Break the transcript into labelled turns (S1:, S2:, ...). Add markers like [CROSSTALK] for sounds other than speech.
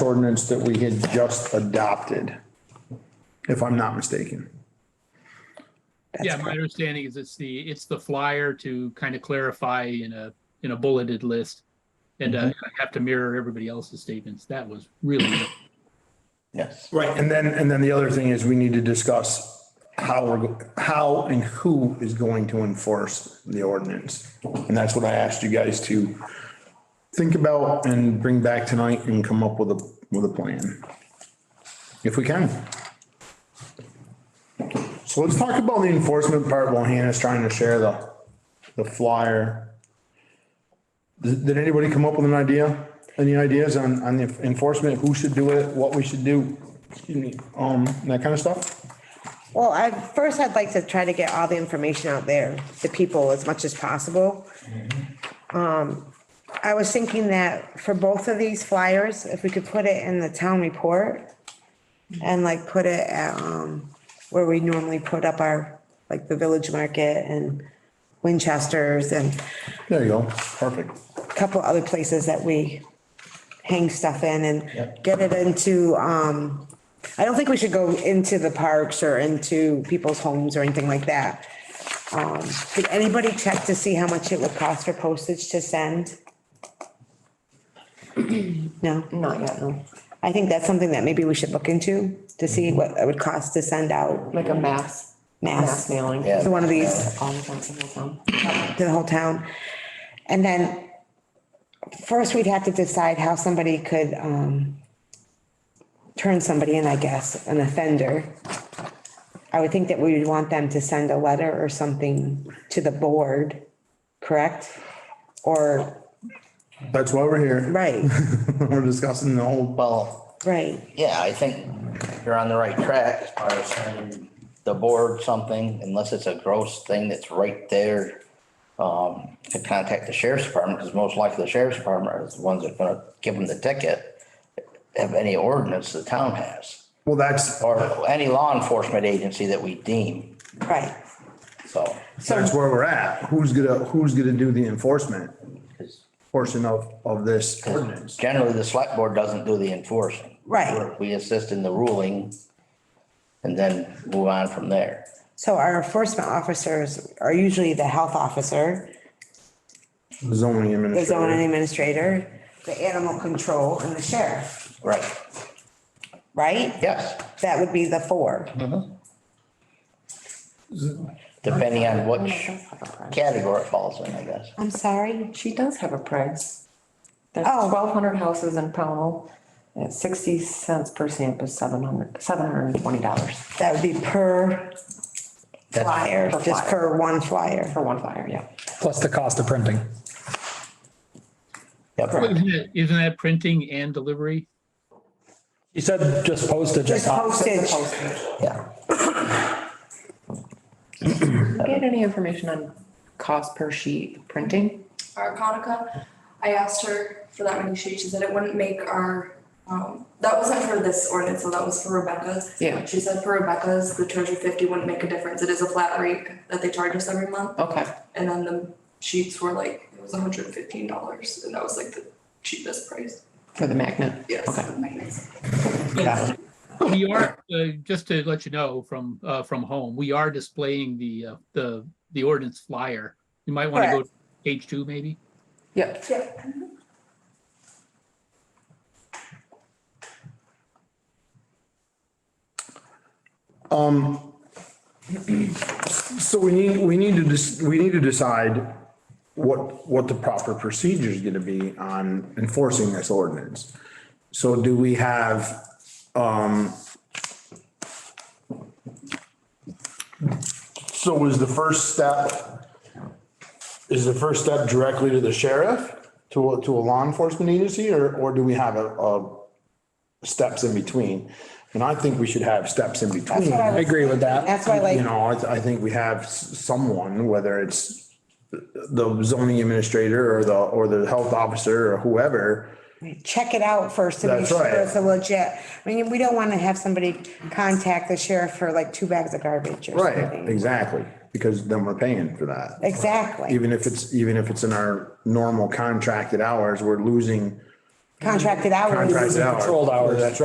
S1: ordinance that we had just adopted, if I'm not mistaken.
S2: Yeah, my understanding is it's the, it's the flyer to kind of clarify in a, in a bulleted list. And uh, have to mirror everybody else's statements. That was really,
S3: Yes.
S1: Right, and then, and then the other thing is we need to discuss how we're, go- how and who is going to enforce the ordinance. And that's what I asked you guys to think about and bring back tonight and come up with a, with a plan. If we can. So let's talk about the enforcement part while Hannah's trying to share the, the flyer. Did did anybody come up with an idea? Any ideas on, on the enforcement, who should do it, what we should do? Excuse me, um, that kind of stuff?
S4: Well, I, first I'd like to try to get all the information out there to people as much as possible. Um, I was thinking that for both of these flyers, if we could put it in the town report and like put it at, um, where we normally put up our, like the village market and Winchester's and
S1: There you go, perfect.
S4: couple other places that we hang stuff in and
S3: Yep.
S4: get it into, um, I don't think we should go into the parks or into people's homes or anything like that. Um, did anybody check to see how much it would cost for postage to send? [CLEARS THROAT] No? Not yet, no. I think that's something that maybe we should look into to see what it would cost to send out
S5: Like a mass, mass
S4: mass to
S5: mailing.
S3: Yeah.
S4: So one of these-
S5: All the ones in the town.
S4: the whole town. And then first we'd have to decide how somebody could, um, turn somebody in, I guess, an offender. I would think that we would want them to send a letter or something to the board, correct? Or,
S1: That's why we're here. [LAUGHS]
S4: right,
S1: We're discussing the whole,
S3: Well,
S4: [LAUGHS] right,
S3: yeah, I think you're on the right track as far as sending the board something, unless it's a gross thing that's right there. Um, to contact the sheriff's department, because most likely the sheriff's department is the ones that are gonna give them the ticket. Of any ordinance the town has,
S1: well, that's,
S3: or any law enforcement agency that we deem,
S4: right.
S3: so.
S4: So,
S1: that's where we're at. Who's gonna, who's gonna do the enforcement
S3: 'cause
S1: portion of, of this ordinance?
S3: Generally, the select board doesn't do the enforcing.
S4: Right.
S3: We assist in the ruling and then move on from there.
S4: so our enforcement officers are usually the health officer,
S1: The Zoning
S4: the zoning
S1: administrator.
S4: administrator, the animal control and the sheriff,
S3: Right,
S4: right?
S3: yes,
S4: That would be the four.
S3: depending on which category it falls in, I guess.
S4: I'm sorry?
S5: She does have a price. There's
S4: Oh.
S5: twelve hundred houses in Pownell. At sixty cents per stamp is seven hundred, seven hundred and twenty dollars
S4: That would be per
S3: That's
S4: flyer,
S5: Per
S4: just
S5: flyer.
S4: per one flyer.
S5: for one flyer, yeah.
S6: plus the cost of printing.
S3: Yep,
S2: isn't it- isn't that printing and delivery?
S6: You said just postage. I
S4: Just
S6: thought.
S4: postage.
S3: yeah.
S5: Get any information on cost per sheet printing?
S7: our Conica. I asked her for that many sheets. She said it wouldn't make our, um, that wasn't for this ordinance, so that was for Rebecca's.
S5: Yeah.
S7: She said for Rebecca's, the two hundred fifty wouldn't make a difference. It is a flat rate that they charge us every month.
S5: Okay,
S7: And then the sheets were like, it was hundred and fifteen dollars, and that was like the cheapest price.
S5: for the magnet.
S7: Yes.
S5: Okay.
S2: We are, uh, just to let you know from, uh, from home, we are displaying the, uh, the, the ordinance flyer. You might want to go to page two maybe.
S5: Yep.
S7: Yeah.
S1: Um, So we need, we need to, dec- we need to decide what, what the proper procedure is gonna be on enforcing this ordinance. So do we have, um, so was the first step, is the first step directly to the sheriff, to, a- to a law enforcement agency, or, or do we have a, a steps in between? And I think we should have steps in between.
S4: what I
S6: I agree with that.
S4: That's why
S1: You
S4: like,
S1: know, I, th- I think we have s- someone, whether it's the zoning administrator or the, or the health officer or whoever.
S4: check it out first to make
S1: That's
S4: sure
S1: right.
S4: it's a legit. I mean, we don't want to have somebody contact the sheriff for like two bags of garbage or something.
S1: Exactly, because then we're paying for that.
S4: Exactly.
S1: Even if it's, even if it's in our normal contracted hours, we're losing
S8: contracted hours.
S1: Contracted out.
S4: Controlled hours.
S1: That's